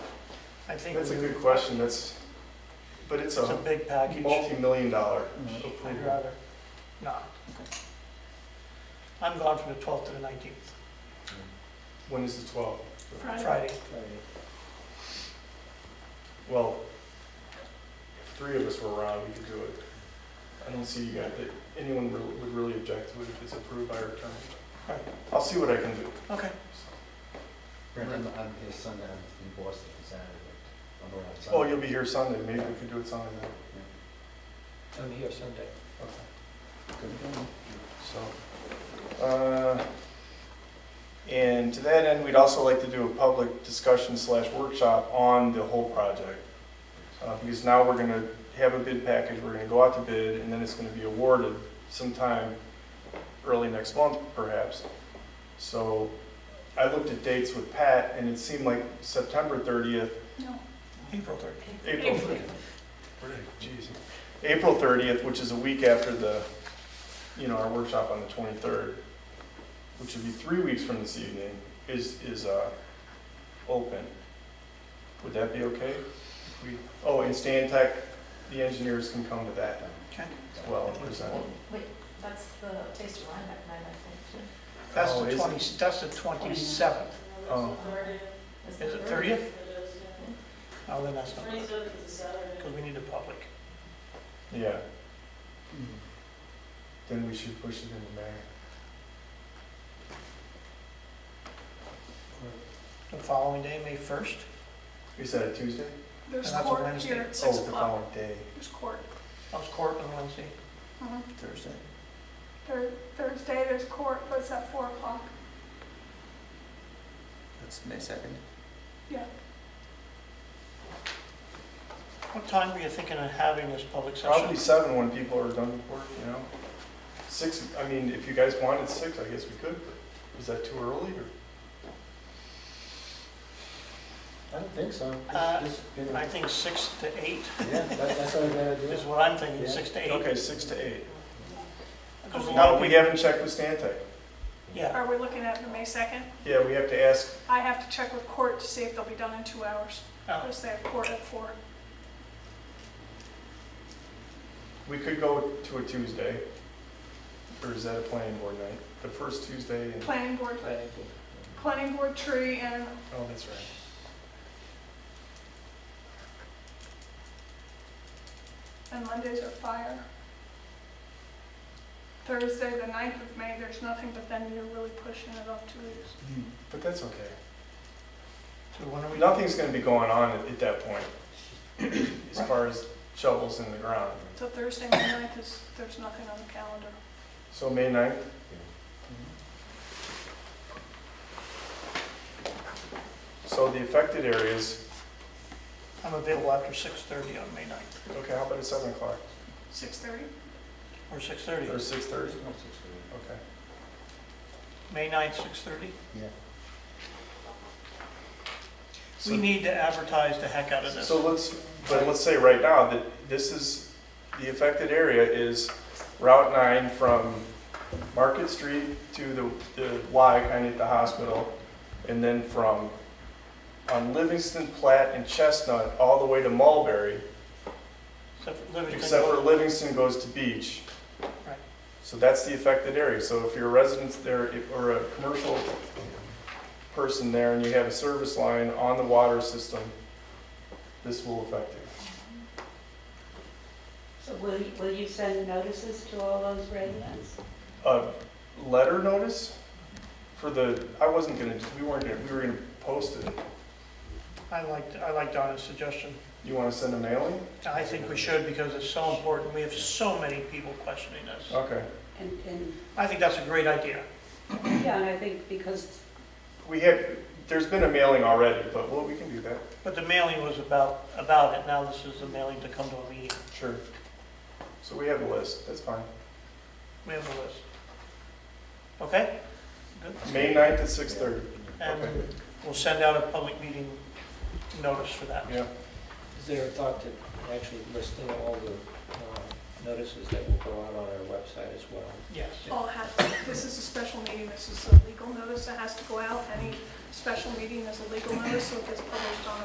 I think That's a we- good question, that's, but it's it's a a big package. multi-million dollar Mhm. I'd approval. rather not. I'm gone from the 12th to the 19th, When is the twelfth? Friday. Well, if three of us were around, we could do it. I don't see you guys, that anyone re- would really object to it if it's approved by our attorney. Right. I'll see what I can do. Okay, Brent, I'm, I'm here Sunday, I'm in Boston on Saturday. I'm around Sunday. Oh, you'll be here Sunday, maybe we could do it Sunday night. I'm here Sunday. Okay. Good. So, uh, and to that end, we'd also like to do a public discussion slash workshop on the whole project. Uh, Because now we're gonna have a bid package, we're gonna go out to bid, and then it's gonna be awarded sometime early next month perhaps. So I looked at dates with Pat, and it seemed like September 30th No. April 30th. April, jeez, April thirtieth, which is a week after the, you know, our workshop on the twenty-third, which would be three weeks from this evening, is, is, uh, open. Would that be okay? If we, oh, and Stan Tech, the engineers can come to that Okay. as well, and present. Wait, that's the taste of Rhinebeck night, I That's Oh, the is it? 20, that's the 27th. Oh, think. Is it 30th? Oh, then that's not good. Because we need a public. yeah, Hmm. then we should push it into May. The following day, May 1st. Is that a Tuesday? There's And that's a court Wednesday. here at six Oh, the o'clock. following day. There's court. I was court on Wednesday. Uh-huh. Thursday. Thur- Thursday, there's court, but it's at four o'clock. That's May second. What time were you thinking of having this public Probably session? seven when people are done with work, you know? Six, I mean, if you guys wanted six, I guess we could, but is that too early or? I don't think so. This- Uh, this has been a- I think 6 to 8 Yeah, that- that's what I gotta do. is what I'm thinking, Yeah. 6 to 8. Okay, six to eight. Because a lot No, of we people- haven't checked with Stantec. Yeah, Are we looking at the May second? Yeah, we have to ask, I have to check with court to see if they'll be done in two hours. Oh, Because they have court at four. we could go to a Tuesday, or is that a planning board night? The first Tuesday in, Planning board, Planning board. planning board tree and oh, that's right. And Mondays are fire. Thursday, the 9th of May, there's nothing, but then you're really pushing it up two weeks. But that's okay. so when are we, Nothing's gonna be going on at, at that point, as far as shovels in the ground. So Thursday, May 9th is, there's nothing on the calendar. So May 9th? So the affected areas, I'm available after 6:30 on May 9th, okay, how about at seven o'clock 6:30? or or 6:30. six thirty? No, six thirty. Okay. May 9th, 6:30. Yeah. We need to advertise the heck out of this. So let's, but let's say right now that this is, the affected area is Route 9 from Market Street to the, the Y kind of at the hospital, and then from, on Livingston, Platt, and Chestnut, all the way to Mulberry, Except for Livingston except for Road. Livingston goes to Beach. Right. So that's the affected area. So if you're a resident there, if- or a commercial person there, and you have a service line on the water system, this will affect you. So will, you- will you send notices to all those residents? a letter notice for the, I wasn't gonna, we weren't gonna, we were gonna post it. I liked, I liked Donna's suggestion. You wanna send a mailing? I think we should because it's so important. We have so many people questioning us. Okay. And, and, I think that's a great idea. yeah, and I think because, We have, there's been a mailing already, but well, we can do that. But the mailing was about, about it. Now this is the mailing to come to a meeting. Sure. So we have a list, that's fine. We have a list. Okay? May ninth at six thirty. And we'll send out a public meeting notice for that. Yeah. Is there a thought to actually listing all the uh, notices that will go out on our website as well? Yes. All has, this is a special meeting, this is a legal notice that has to go out. Any special meeting is a legal notice, so it gets published on